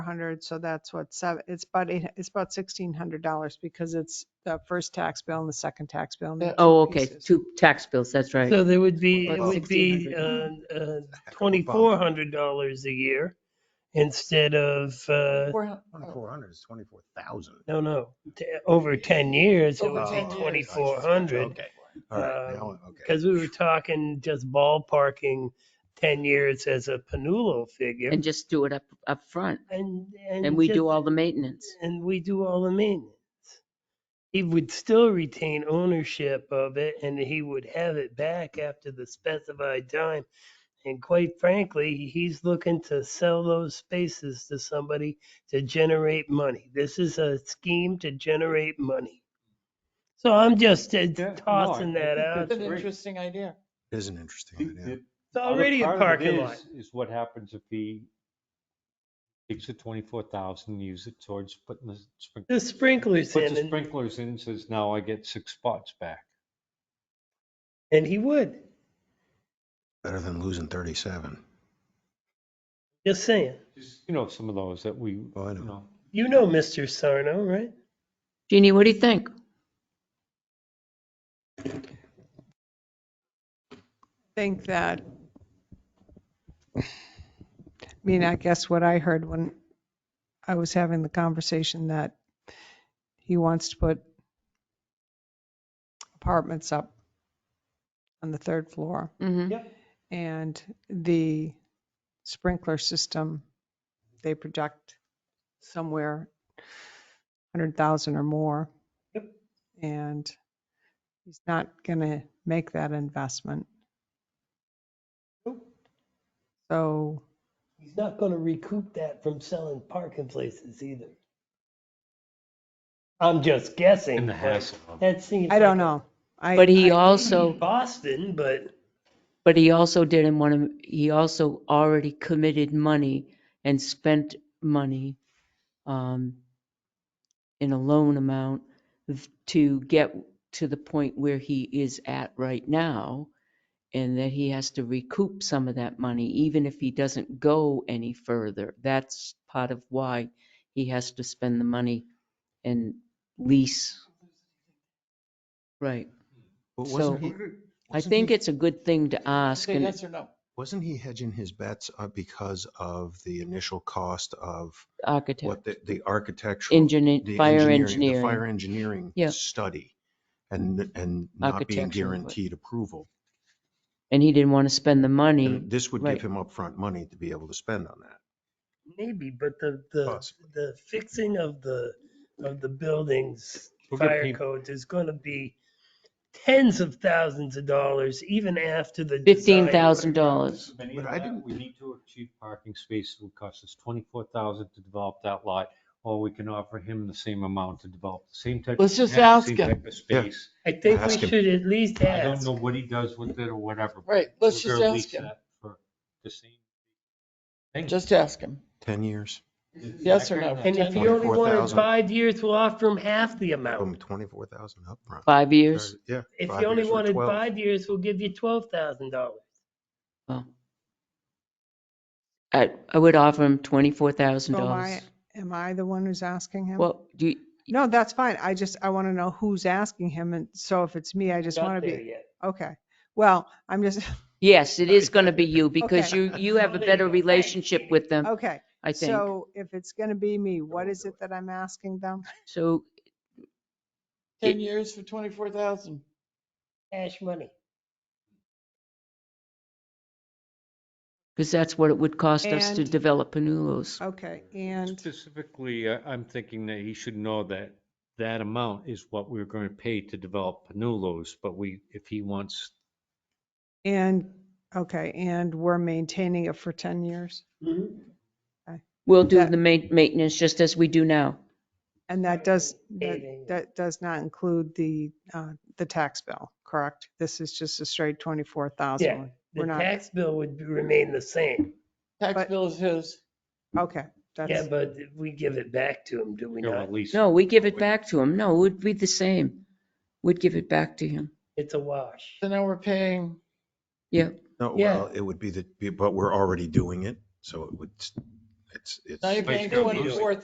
hundred, so that's what seven, it's about, eight- it's about sixteen hundred dollars because it's the first tax bill and the second tax bill. and they're Oh, okay, pieces. two tax bills, that's right. So there would be, it Well, would be uh, twenty-four hundred dollars a year instead of, uh, Twenty-four hundred is twenty-four thousand. no, no, t- over ten years, it would Over 10 be years. twenty-four hundred. Okay, all right, now, Um, okay. Because we were talking just ballparking ten years as a Panulo figure And just do it up, up front. and. And we just- do all the maintenance. And we do all the maintenance. He would still retain ownership of it and he would have it back after the specified time. And quite frankly, he's looking to sell those spaces to somebody to generate money. This is a scheme to generate money. So I'm just uh, no, I tossing that think out. that's there. great. interesting idea. It is an interesting idea. It's already a parking lot. Is what happens if he takes the twenty-four thousand, use it towards putting the sprinklers. The sprinklers Puts in the and, sprinklers in and says, now I get six spots back. and he would, Better than losing thirty-seven. just saying. Just, You know, some of those that we, you Oh, I know. know, You know Mr. Sarno, right? Jeannie, what do you think? Think that, I mean, I guess what I heard when I was having the conversation that he wants to put apartments up on the third floor. Mhm. and the sprinkler system, they project somewhere 100,000 or more. Yep. And he's not going to make that investment. Nope. So, He's not gonna recoup that from selling parking places either. I'm just guessing. in the but hassle. of it. That seems. I don't like know. I- But he I- also, Boston, but but he also didn't want to, he also already committed money and spent money um, in a loan amount to get to the point where he is at right now. And that he has to recoup some of that money, even if he doesn't go any further. That's part of why he has to spend the money and lease. Right. But So- wasn't he? I wasn't think he- it's a good thing to ask Say and yes or no. Wasn't he hedging his bets uh, because of the initial cost of what architect, the, the architectural? engineer, the fire engineering- The fire engineering. engineering Yeah. study and, and not being Architectural, but- guaranteed approval. And he didn't want to spend the money. And this would right. give him upfront money to be able to spend on that. maybe, but the, the, Possibly. the fixing of the, of the buildings, We'll get fire peop- codes is gonna be tens of thousands of dollars even after the. design Fifteen work. thousand dollars. Many But of I that, didn't- We need to achieve parking space, it would cost us twenty-four thousand to develop that lot, or we can offer him the same amount to develop the same type. Let's of just net, ask same him. type of Space. I think we Ask him. should at least I don't ask. know what he does with it or whatever. but Right, let's we're just gonna ask lease him. that For the same. thing. Just ask him. 10 years, yes or no? And if you only wanted 24,000. five years, we'll offer him half the from amount. 24,000 upfront. Five years. Or- Yeah. If five you only years or wanted 12. five years, we'll give you twelve thousand dollars. Well, I, I would offer him twenty-four thousand so am Oh, I, dollars. am I the one who's asking him? Well, do you, No, that's fine. I just, I want to know who's asking him. And so if it's me, I just Not want to there be, yet. okay. Well, I'm just, yes, it is going to be you because Okay. you, you have a Well, there you better go. relationship with them, okay. I think. So if it's going to be me, what we'll is do it that I'm asking them? So Ten years for twenty-four thousand. Cash money. Because that's what it would cost us to And- Oh, develop Panulos. Okay, and, Specifically, I- I'm thinking that he should know that that amount is what we're going to pay to develop Panulos, but we, if he wants and, okay, and we're maintaining it for 10 years? We'll do That- the ma- maintenance just as we do now. And that does, that Maintaining it. that does not include the, uh, the tax bill, correct? This is just a straight 24,000? Yeah, We're The not- tax bill would remain the same. Tax But- bill is his. Okay, Yeah, that's, but we give it back to him, do we to not? release. No, we give it back to him. No, it would be the same. We'd give it back to him. It's a wash. So now we're paying, Yeah. No, Yeah. Oh, well, it would be the, but we're already doing it, so it would, It's, it's. Now you're But paying it's gonna be- twenty-four